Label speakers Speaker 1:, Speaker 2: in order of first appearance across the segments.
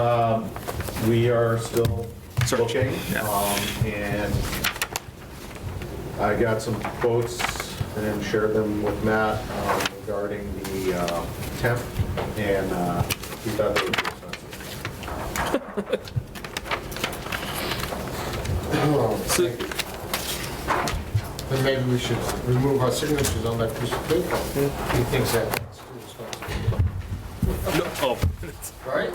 Speaker 1: Um, We are still
Speaker 2: Searching,
Speaker 1: looking.
Speaker 2: yeah.
Speaker 1: um, And I got some quotes and shared them with Matt um, regarding the uh, temp, and uh, he thought they were too expensive.
Speaker 3: So- Then maybe we should remove our signatures on that piece of paper. He thinks that.
Speaker 2: No, oh,
Speaker 3: Right?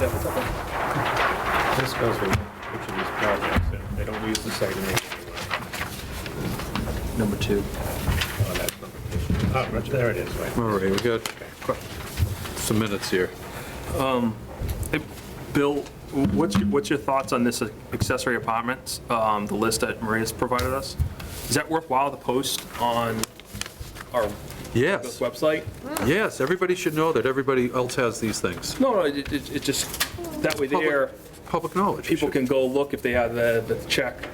Speaker 4: This goes with each of these projects, and they don't use the site name.
Speaker 2: number two.
Speaker 4: Oh, that's number two. Oh, right, there it is, right.
Speaker 5: All right, we got some minutes here.
Speaker 2: Bill, what's, your- what's your thoughts on this accessory apartments, um, the list that Maria's provided us? Is that worthwhile to post on our
Speaker 5: Yes,
Speaker 2: website?
Speaker 5: yes, everybody should know that everybody else has these things.
Speaker 2: No, no, it, it it just, that way there,
Speaker 5: Public knowledge.
Speaker 2: people can go look if they have the, the check,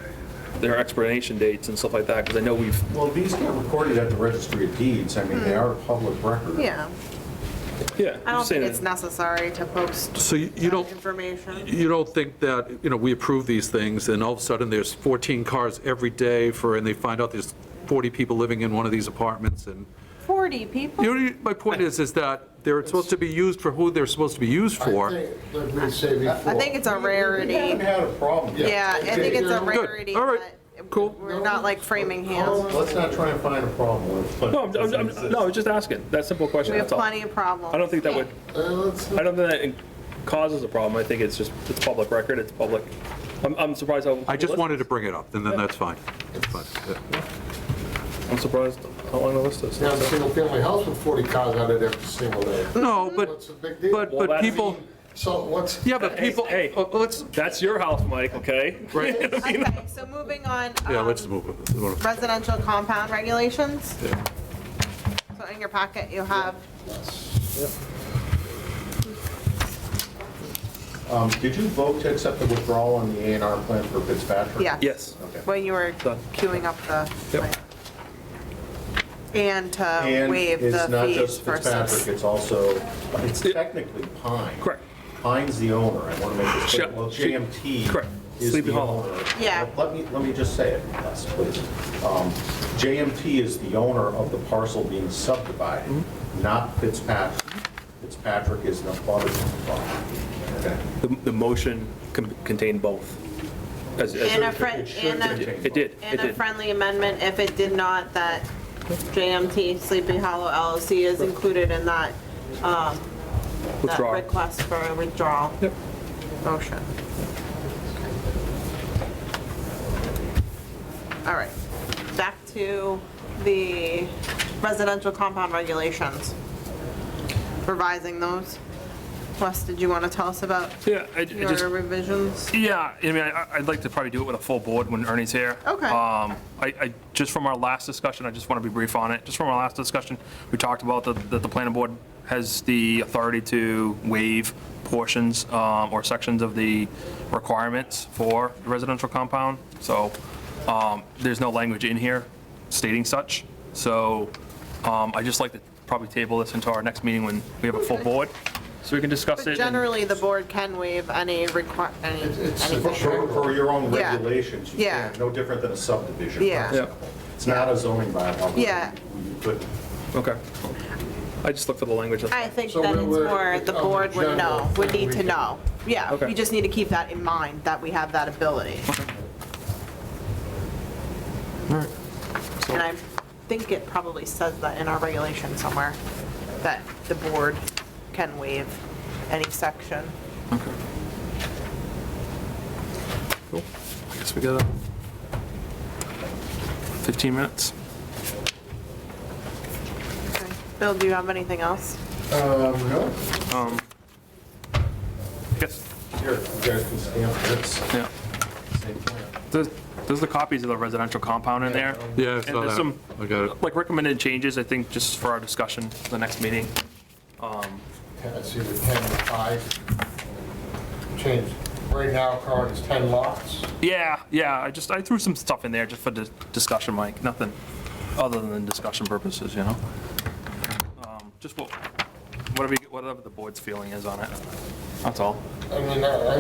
Speaker 2: their expiration dates and stuff like that, because I know we've,
Speaker 1: Well, these get recorded at the registry of deeds, I mean, they are public record.
Speaker 6: Hmm. Yeah,
Speaker 2: yeah.
Speaker 6: I
Speaker 2: I'm
Speaker 6: don't
Speaker 2: saying
Speaker 6: think it's necessary to post
Speaker 5: So you you
Speaker 6: that
Speaker 5: don't,
Speaker 6: information.
Speaker 5: you don't think that, you know, we approve these things, and all of a sudden, there's 14 cars every day for, and they find out there's 40 people living in one of these apartments, and,
Speaker 6: 40 people?
Speaker 5: you know, my point is, is that they're supposed to be used for who they're supposed to be used
Speaker 3: I
Speaker 5: for.
Speaker 3: think, Like we say before.
Speaker 6: I think it's a
Speaker 1: We haven't
Speaker 6: rarity.
Speaker 1: had a problem yet.
Speaker 6: Yeah, I think it's a
Speaker 3: Good.
Speaker 6: rarity,
Speaker 5: All right.
Speaker 6: but
Speaker 5: Cool.
Speaker 6: we're not like framing hands.
Speaker 1: Let's not try and find a problem with it.
Speaker 2: No, I'm- I'm, I'm, no, I was just asking, that simple question,
Speaker 6: We have
Speaker 2: that's all.
Speaker 6: plenty of problems.
Speaker 2: I don't think that would,
Speaker 3: Uh, let's-
Speaker 2: I don't think that it causes a problem, I think it's just, it's public record, it's public. I'm, I'm surprised how.
Speaker 5: I just wanted to bring it up, and then that's fine. uh, That's fine. yeah.
Speaker 2: I'm surprised how long the list is.
Speaker 3: Now, a single-family house with 40 cars on it every single day.
Speaker 5: No,
Speaker 3: What's
Speaker 5: but,
Speaker 3: the big deal?
Speaker 5: but,
Speaker 2: Well,
Speaker 5: but
Speaker 2: that's-
Speaker 5: people,
Speaker 3: So what's?
Speaker 5: yeah, but
Speaker 2: Hey,
Speaker 5: people,
Speaker 2: hey.
Speaker 5: uh, let's,
Speaker 2: That's your house, Mike, okay?
Speaker 5: right,
Speaker 6: Okay, so moving on,
Speaker 5: yeah, let's
Speaker 6: um,
Speaker 5: move it.
Speaker 6: residential compound regulations. So in your packet, you have,
Speaker 1: Um, Did you vote to accept the withdrawal on the A and R plan for Fitzpatrick?
Speaker 6: yeah.
Speaker 2: Yes.
Speaker 1: Okay.
Speaker 6: When you were
Speaker 2: Done.
Speaker 6: queuing up the
Speaker 2: Yep.
Speaker 6: plan. And to
Speaker 1: And
Speaker 6: waive the
Speaker 1: it's not
Speaker 6: fees
Speaker 1: just
Speaker 6: for
Speaker 1: Fitzpatrick,
Speaker 6: subs.
Speaker 1: it's also, it's technically Pine.
Speaker 2: Correct.
Speaker 1: Pine's the owner, I want to make this clear.
Speaker 2: Sure.
Speaker 1: Well, JMT
Speaker 2: Correct.
Speaker 1: is
Speaker 2: Sleepy
Speaker 1: the
Speaker 2: Hollow.
Speaker 1: owner.
Speaker 6: Yeah.
Speaker 1: Let me, let me just say it, yes, please. Um, JMT is the owner of the parcel being subdivided,
Speaker 2: Mm-hmm.
Speaker 1: not Fitzpatrick. Fitzpatrick is an abutter. to the property. Okay.
Speaker 2: The, the motion con- contained both. As- as-
Speaker 6: And a
Speaker 1: fr-
Speaker 6: friend,
Speaker 1: It should
Speaker 6: and a.
Speaker 1: contain
Speaker 2: It did, it
Speaker 6: And a
Speaker 2: did.
Speaker 6: friendly amendment, if it did not, that JMT Sleepy Hollow LLC is included in that, um, that
Speaker 2: Withdrawal.
Speaker 6: request for a withdrawal
Speaker 2: Yep.
Speaker 6: motion. All right, back to the residential compound regulations. Revising those. Wes, did you want to tell us about
Speaker 2: Yeah, I I just,
Speaker 6: your revisions?
Speaker 2: yeah, I mean, I- I'd like to probably do it with a full board when Ernie's here.
Speaker 6: Okay.
Speaker 2: Um, I, I, just from our last discussion, I just want to be brief on it. Just from our last discussion, we talked about that, that the planning board has the authority to waive portions, um, or sections of the requirements for residential compound. So, um, there's no language in here stating such. So, um, I just like to probably table this into our next meeting when we have a full board, so we can discuss it.
Speaker 6: But
Speaker 2: and-
Speaker 6: generally, the board can waive any require, any,
Speaker 3: It's- it's-
Speaker 1: For-
Speaker 6: anything.
Speaker 1: For for your own
Speaker 6: Yeah.
Speaker 1: regulations, you
Speaker 6: Yeah.
Speaker 1: can't, no different than a subdivision.
Speaker 6: Yeah.
Speaker 2: Yeah.
Speaker 1: It's not a zoning bylaw. where
Speaker 6: Yeah.
Speaker 1: You couldn't
Speaker 2: Okay. I just look for the language. that's-
Speaker 6: I think
Speaker 3: So
Speaker 6: that
Speaker 3: we're-
Speaker 6: it's
Speaker 3: we're-
Speaker 6: more, the
Speaker 3: it's on
Speaker 6: board
Speaker 3: the
Speaker 6: would
Speaker 3: general
Speaker 6: know, would
Speaker 3: thing
Speaker 6: need
Speaker 3: we
Speaker 6: to
Speaker 3: can-
Speaker 6: know. Yeah,
Speaker 2: Okay.
Speaker 6: we just need to keep that in mind, that we have that ability. And I think it probably says that in our regulation somewhere, that the board can waive any section.
Speaker 2: Cool. I guess we got uh, 15 minutes.
Speaker 6: Okay. Bill, do you have anything else?
Speaker 3: Um, no.
Speaker 2: Um, Yes,
Speaker 1: Here, you guys can stamp this.
Speaker 2: yeah.
Speaker 1: Same plan.
Speaker 2: There's there's the copies of the residential compound in there.
Speaker 5: Yeah, I
Speaker 2: And
Speaker 5: saw
Speaker 2: there's
Speaker 5: that.
Speaker 2: some,
Speaker 5: I got it.
Speaker 2: like, recommended changes, I think, just for our discussion for the next meeting.
Speaker 3: I see the 10 to 5 change. Right now, current is 10 lots.
Speaker 2: Yeah, yeah, I just, I threw some stuff in there just for dis- discussion, Mike, nothing other than discussion purposes, you know? Um, Just what- whatever, you- whatever the board's feeling is on it. That's all.
Speaker 3: I mean, I I